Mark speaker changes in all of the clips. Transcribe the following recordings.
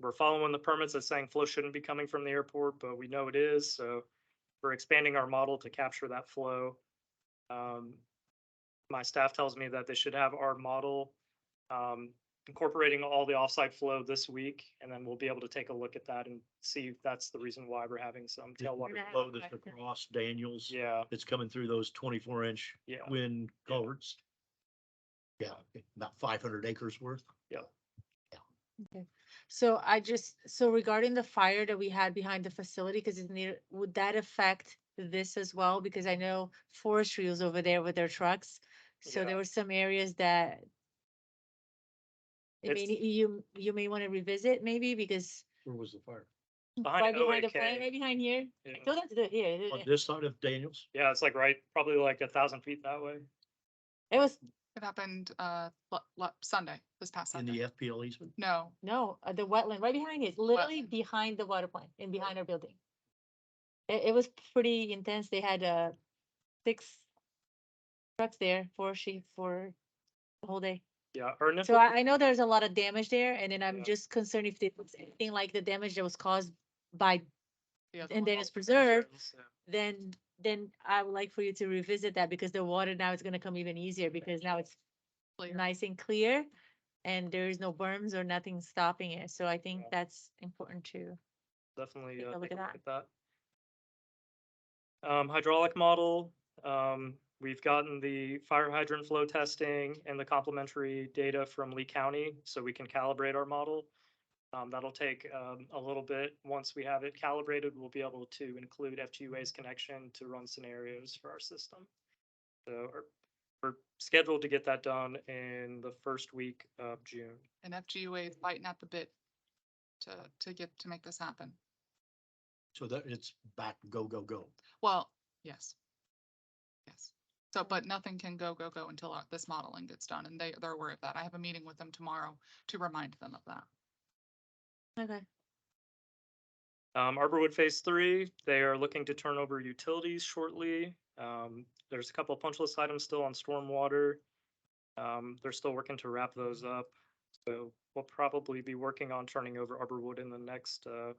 Speaker 1: we're following the permits that's saying flow shouldn't be coming from the airport, but we know it is, so we're expanding our model to capture that flow. Um, my staff tells me that they should have our model um, incorporating all the offsite flow this week, and then we'll be able to take a look at that and see if that's the reason why we're having some tailwater.
Speaker 2: have
Speaker 3: Flow
Speaker 2: a
Speaker 3: that's
Speaker 2: question.
Speaker 3: across Daniels,
Speaker 1: Yeah,
Speaker 3: that's coming through those twenty-four inch
Speaker 1: yeah,
Speaker 3: wind culverts. Yeah, about five hundred acres worth.
Speaker 2: So I just, so regarding the fire that we had behind the facility, because it's near, would that affect this as well? Because I know forestry was over there with their trucks. So
Speaker 1: Yeah.
Speaker 2: there were some areas that I
Speaker 1: It's-
Speaker 2: mean, you, you may want to revisit maybe because
Speaker 3: Where was the fire?
Speaker 2: right
Speaker 1: behind
Speaker 2: behind the
Speaker 1: OAK.
Speaker 2: fire, right behind here.
Speaker 1: yeah.
Speaker 2: Don't have to do it here. do
Speaker 3: On
Speaker 2: it-
Speaker 3: this side of Daniels?
Speaker 1: Yeah, it's like right, probably like a thousand feet that way.
Speaker 2: It was,
Speaker 4: It happened uh lo- lo- Sunday, this past
Speaker 3: In the
Speaker 4: Sunday.
Speaker 3: FPL easement?
Speaker 4: No,
Speaker 2: no, uh, the wetland, right behind it, literally behind the water plant and behind our building. It, it was pretty intense. They had, uh, six trucks there for she, for the whole day.
Speaker 1: Yeah, or
Speaker 2: So
Speaker 1: NIFLA,
Speaker 2: I, I know there's a lot of damage there, and then
Speaker 1: Yeah.
Speaker 2: I'm just concerned if it's anything like the damage that was caused by,
Speaker 4: the other
Speaker 2: and
Speaker 4: one.
Speaker 2: then it's preserved,
Speaker 1: so-
Speaker 2: then, then I would like for you to revisit that, because the water now is gonna come even easier, because now it's
Speaker 4: Clear.
Speaker 2: nice and clear, and there is no berms or nothing stopping it, so I think
Speaker 1: Yeah.
Speaker 2: that's important too.
Speaker 1: definitely
Speaker 2: Take
Speaker 1: uh,
Speaker 2: a look
Speaker 1: take a
Speaker 2: at
Speaker 1: look at that. Um, hydraulic model, um, we've gotten the fire hydrant flow testing and the complementary data from Lee County, so we can calibrate our model. Um, that'll take, um, a little bit. Once we have it calibrated, we'll be able to include FGUA's connection to run scenarios for our system. So we're- we're scheduled to get that done in the first week of June.
Speaker 4: And FGUA is biting at the bit to to get to make this happen.
Speaker 3: So that it's back, go, go, go.
Speaker 4: Well, yes. Yes. So, but nothing can go, go, go until uh, this modeling gets done and they they're aware of that. I have a meeting with them tomorrow to remind them of that.
Speaker 2: Okay.
Speaker 1: Um, Arborwood Phase Three, they are looking to turn over utilities shortly. Um, there's a couple of punch list items still on stormwater. Um, they're still working to wrap those up. So we'll probably be working on turning over Arborwood in the next, uh,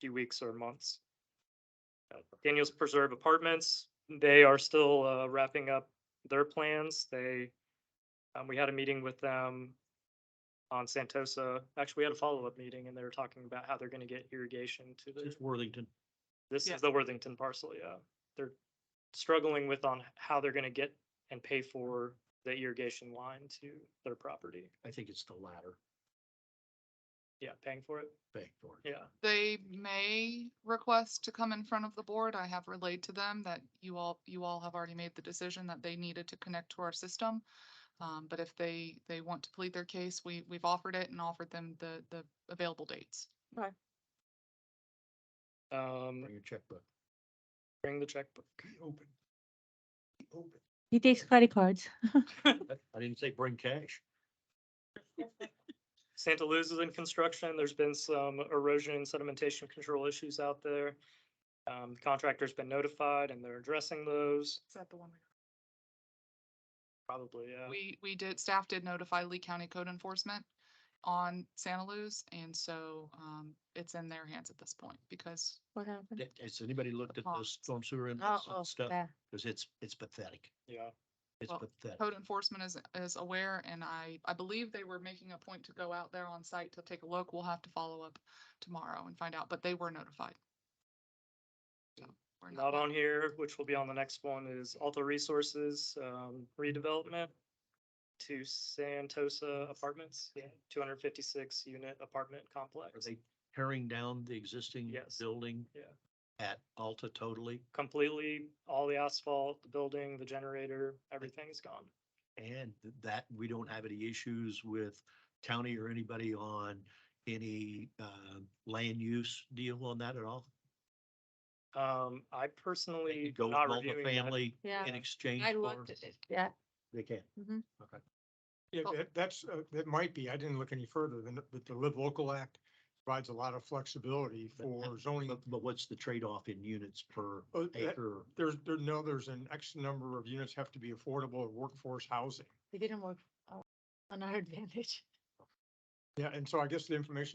Speaker 1: few weeks or months. Uh, Daniels Preserve Apartments, they are still, uh, wrapping up their plans. They, um, we had a meeting with them on Santosa. Actually, we had a follow-up meeting and they were talking about how they're gonna get irrigation to the.
Speaker 3: It's Worthington.
Speaker 1: This
Speaker 4: Yeah.
Speaker 1: is the Worthington parcel, yeah. They're struggling with on how they're gonna get and pay for the irrigation line to their property.
Speaker 3: I think it's the latter
Speaker 1: Yeah, paying for it,
Speaker 3: bank door.
Speaker 1: yeah.
Speaker 4: They may request to come in front of the board. I have relayed to them that you all, you all have already made the decision that they needed to connect to our system. Um, but if they, they want to plead their case, we, we've offered it and offered them the, the available dates.
Speaker 1: Um,
Speaker 3: Bring your checkbook.
Speaker 1: bring the checkbook.
Speaker 3: Be open. Be open.
Speaker 2: He takes credit cards.
Speaker 3: I didn't say bring cash.
Speaker 1: Santa Luz is in construction. There's been some erosion and sedimentation control issues out there. Um, contractor's been notified and they're addressing those,
Speaker 4: Is that the one?
Speaker 1: probably, yeah.
Speaker 4: We, we did, staff did notify Lee County Code Enforcement on Santa Luz. And so, um, it's in their hands at this point because
Speaker 2: What happened?
Speaker 3: Th- Has anybody looked at the storm sewer and
Speaker 2: Oh, oh,
Speaker 3: stuff?
Speaker 2: yeah.
Speaker 3: Because it's, it's pathetic.
Speaker 1: Yeah,
Speaker 3: It's
Speaker 4: Well,
Speaker 3: pathetic.
Speaker 4: code enforcement is, is aware and I, I believe they were making a point to go out there on site to take a look. We'll have to follow up tomorrow and find out, but they were notified. So, we're
Speaker 1: not
Speaker 4: yet-
Speaker 1: on here, which will be on the next one, is Alto Resources, um, redevelopment to Santosa Apartments. Yeah. Two hundred fifty-six unit apartment
Speaker 3: Are
Speaker 1: complex,
Speaker 3: they tearing down the existing
Speaker 1: Yes.
Speaker 3: building?
Speaker 1: Yeah.
Speaker 3: At Alta totally
Speaker 1: completely, all the asphalt, the building, the generator, everything is gone.
Speaker 3: and th- that we don't have any issues with county or anybody on any uh land use deal on that at all?
Speaker 1: Um, I
Speaker 3: They could
Speaker 1: personally
Speaker 3: Go with
Speaker 1: not reviewing that.
Speaker 3: multifamily
Speaker 2: Yeah,
Speaker 3: in exchange
Speaker 2: I
Speaker 3: for,
Speaker 2: looked at it, yeah.
Speaker 3: they can.
Speaker 2: mhm.
Speaker 3: Okay.
Speaker 5: Yeah,
Speaker 4: Oh.
Speaker 5: that, that's, uh, that might be, I didn't look any further than, the- but the Live Local Act provides a lot of flexibility
Speaker 3: But how-
Speaker 5: for zoning.
Speaker 3: But, but what's the trade-off in units per
Speaker 5: Oh, that-
Speaker 3: acre?
Speaker 5: There's, there, no, there's an X number of units have to be affordable or workforce housing.
Speaker 2: It didn't work uh, on our advantage.
Speaker 5: Yeah, and so I guess the information